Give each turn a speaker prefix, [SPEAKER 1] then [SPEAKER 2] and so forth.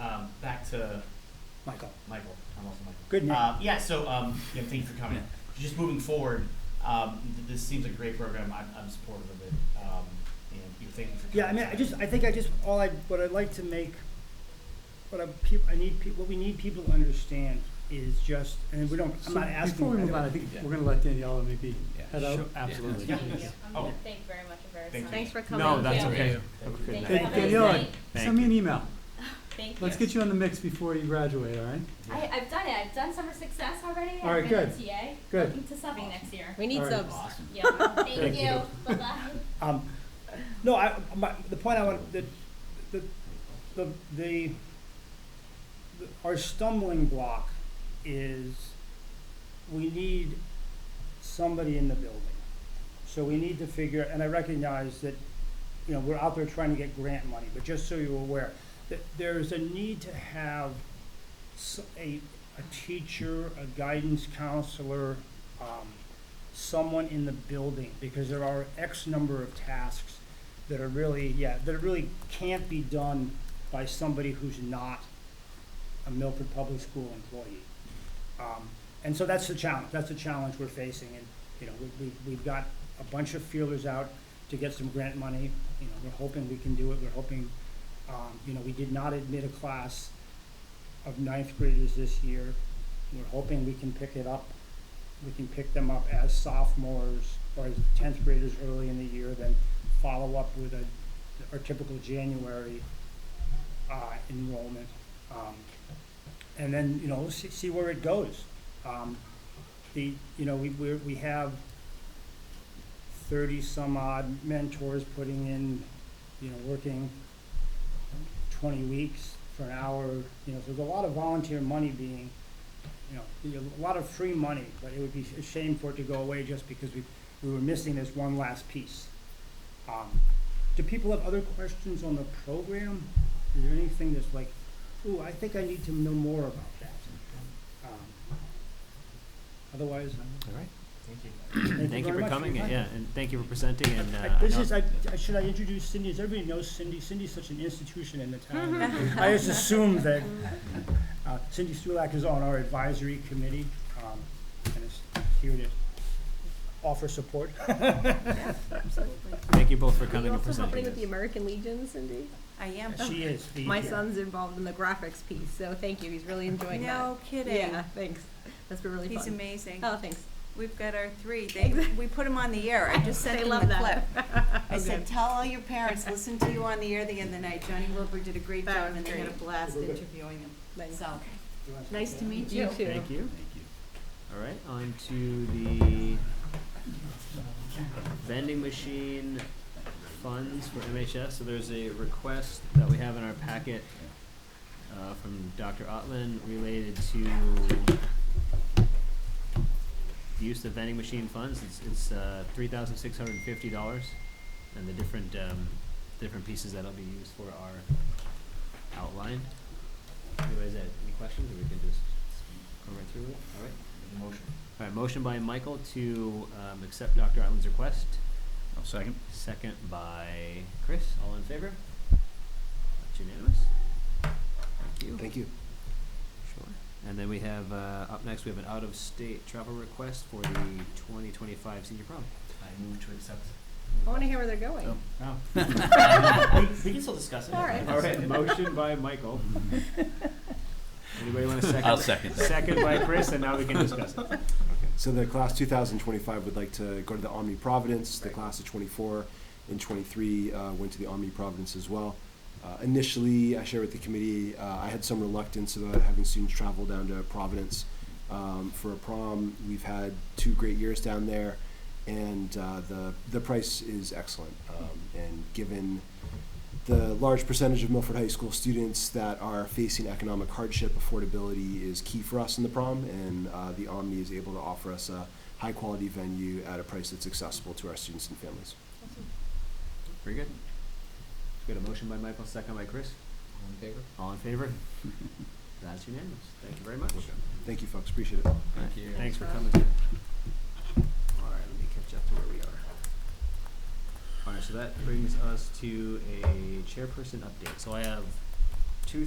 [SPEAKER 1] um, back to
[SPEAKER 2] Michael.
[SPEAKER 1] Michael. I'm also Michael.
[SPEAKER 2] Good name.
[SPEAKER 1] Uh, yeah. So um, yeah, thank you for coming. Just moving forward, um, th- this seems like a great program. I'm, I'm supportive of it. Um, and you thank you for coming.
[SPEAKER 2] Yeah, I mean, I just, I think I just, all I, what I'd like to make, what I, peop I need, peop what we need people to understand is just, and we don't, I'm
[SPEAKER 3] So
[SPEAKER 2] not asking.
[SPEAKER 3] Before we
[SPEAKER 2] I
[SPEAKER 3] move
[SPEAKER 2] don't-
[SPEAKER 3] on, I think
[SPEAKER 4] Yeah.
[SPEAKER 3] we're gonna let Daniela maybe
[SPEAKER 4] Yeah.
[SPEAKER 3] head out.
[SPEAKER 4] Sure. Absolutely.
[SPEAKER 1] Yeah.
[SPEAKER 5] Thank you. I'm
[SPEAKER 1] Oh.
[SPEAKER 5] gonna thank very much for
[SPEAKER 1] Thank
[SPEAKER 5] your
[SPEAKER 1] you.
[SPEAKER 5] time.
[SPEAKER 6] Thanks for coming.
[SPEAKER 4] No, that's
[SPEAKER 5] Yeah.
[SPEAKER 4] okay.
[SPEAKER 1] Thank you.
[SPEAKER 5] Thank you.
[SPEAKER 3] Hey,
[SPEAKER 5] Have a nice
[SPEAKER 3] Daniela,
[SPEAKER 5] night.
[SPEAKER 3] Send me an email.
[SPEAKER 5] Thank you.
[SPEAKER 3] Let's get you in the mix before you graduate, all right?
[SPEAKER 5] I, I've done it. I've done summer success already.
[SPEAKER 3] All right,
[SPEAKER 5] I've been
[SPEAKER 3] good.
[SPEAKER 5] a TA.
[SPEAKER 3] Good.
[SPEAKER 5] Looking to subbing next year.
[SPEAKER 6] We need
[SPEAKER 3] All right.
[SPEAKER 6] subs.
[SPEAKER 1] Awesome.
[SPEAKER 5] Yeah. Thank
[SPEAKER 3] Thank
[SPEAKER 5] you.
[SPEAKER 3] you.
[SPEAKER 5] Bye-bye.
[SPEAKER 2] Um, no, I, my, the point I want, the, the, the, the, the- our stumbling block is we need somebody in the building. So we need to figure, and I recognize that, you know, we're out there trying to get grant money, but just so you're aware, that there is a need to have s- a, a teacher, a guidance counselor, um, someone in the building, because there are X number of tasks that are really, yeah, that really can't be done by somebody who's not a Milford Public School employee. Um, and so that's the challenge, that's the challenge we're facing, and, you know, we, we, we've got a bunch of feelers out to get some grant money, you know, we're hoping we can do it, we're hoping, um, you know, we did not admit a class of ninth graders this year, we're hoping we can pick it up we can pick them up as sophomores or as tenth graders early in the year, then follow up with a, our typical January, uh, enrollment. Um, and then, you know, see, see where it goes. Um, the, you know, we, we're, we have thirty some odd mentors putting in, you know, working twenty weeks for an hour, you know, so there's a lot of volunteer money being you know, you know, a lot of free money, but it would be a shame for it to go away just because we, we were missing this one last piece. Um, do people have other questions on the program? Is there anything that's like, ooh, I think I need to know more about that? Um, Otherwise, I'm-
[SPEAKER 7] All right.
[SPEAKER 1] Thank you.
[SPEAKER 7] Thank you
[SPEAKER 2] very
[SPEAKER 7] for
[SPEAKER 2] much
[SPEAKER 7] coming,
[SPEAKER 2] your
[SPEAKER 7] and-
[SPEAKER 2] time.
[SPEAKER 7] yeah, and thank you for presenting, and, uh,
[SPEAKER 2] I-
[SPEAKER 7] I
[SPEAKER 2] This
[SPEAKER 7] know-
[SPEAKER 2] is, I, I- should I introduce Cindy? Does everybody know Cindy? Cindy's such an institution in the town.
[SPEAKER 8] Mm-hmm.
[SPEAKER 2] I just assume that uh, Cindy Stulak is on our advisory committee, um, and is here to offer support.
[SPEAKER 6] Absolutely.
[SPEAKER 7] thank you both for
[SPEAKER 6] Are
[SPEAKER 7] coming
[SPEAKER 6] you
[SPEAKER 7] and
[SPEAKER 6] also
[SPEAKER 7] presenting
[SPEAKER 6] helping
[SPEAKER 7] this.
[SPEAKER 6] with the American Legion, Cindy?
[SPEAKER 8] I am.
[SPEAKER 2] She is the.
[SPEAKER 6] My
[SPEAKER 2] yeah.
[SPEAKER 6] son's involved in the graphics piece, so thank you. He's really enjoying
[SPEAKER 8] No
[SPEAKER 6] that.
[SPEAKER 8] kidding.
[SPEAKER 6] Yeah, thanks. That's been really
[SPEAKER 8] He's
[SPEAKER 6] fun.
[SPEAKER 8] amazing.
[SPEAKER 6] Oh, thanks.
[SPEAKER 8] We've got our three. They, we put them on the air. I just sent
[SPEAKER 6] They
[SPEAKER 8] them
[SPEAKER 6] love
[SPEAKER 8] the clip.
[SPEAKER 6] that.
[SPEAKER 8] I
[SPEAKER 6] Oh,
[SPEAKER 8] said,
[SPEAKER 6] good.
[SPEAKER 8] tell all your parents, listen to you on the air the other night. Johnny Wilbur did a great
[SPEAKER 6] That
[SPEAKER 8] job
[SPEAKER 6] was
[SPEAKER 8] and they had a
[SPEAKER 6] great.
[SPEAKER 8] blast interviewing them.
[SPEAKER 6] Thanks.
[SPEAKER 8] So,
[SPEAKER 2] Do you want
[SPEAKER 8] nice to
[SPEAKER 2] that?
[SPEAKER 8] meet
[SPEAKER 6] You
[SPEAKER 8] you.
[SPEAKER 6] too.
[SPEAKER 7] Thank you. All right, on to the vending machine funds for MHS. So there's a request that we have in our packet uh, from Dr. Otlin related to the use of vending machine funds. It's, it's uh, $3,650. And the different, um, different pieces that'll be used for are outlined. Anyways, uh, any questions, or we can just go right through it? All right.
[SPEAKER 1] Motion.
[SPEAKER 7] All right, motion by Michael to um, accept Dr. Island's request,
[SPEAKER 4] I'll second.
[SPEAKER 7] second by Chris, all in favor? That's unanimous. Thank you.
[SPEAKER 4] Thank you.
[SPEAKER 7] Sure. And then we have, uh, up next, we have an out-of-state travel request for the twenty twenty-five senior prom.
[SPEAKER 1] I move to accept.
[SPEAKER 6] I want to hear where they're going.
[SPEAKER 7] Oh.
[SPEAKER 1] Oh. we, we can still discuss it.
[SPEAKER 6] All right.
[SPEAKER 7] All right, motion by Michael. Anybody want a 2nd
[SPEAKER 4] I'll second that.
[SPEAKER 7] Second by Chris, and now we can discuss it.
[SPEAKER 9] So the class 2025 would like to go to the Omni Providence. The class of 24 and 23 uh, went to the Omni Providence as well. Uh, initially, I shared with the committee, uh, I had some reluctance about having students travel down to Providence um, for a prom. We've had two great years down there, and uh, the the price is excellent. Um, and given the large percentage of Milford High School students that are facing economic hardship, affordability is key for us in the prom, and uh, the Omni is able to offer us a high quality venue at a price that's accessible to our students and families.
[SPEAKER 7] Very good. Got a motion by Michael, second by Chris.
[SPEAKER 1] All in favor?
[SPEAKER 7] All in favor? That's unanimous. Thank you very much.
[SPEAKER 9] Thank you, folks. Appreciate it.
[SPEAKER 7] Thank
[SPEAKER 4] you.
[SPEAKER 7] Thanks for coming. All right, let me catch up to where we are. All right, so that brings us to a chairperson update. So I have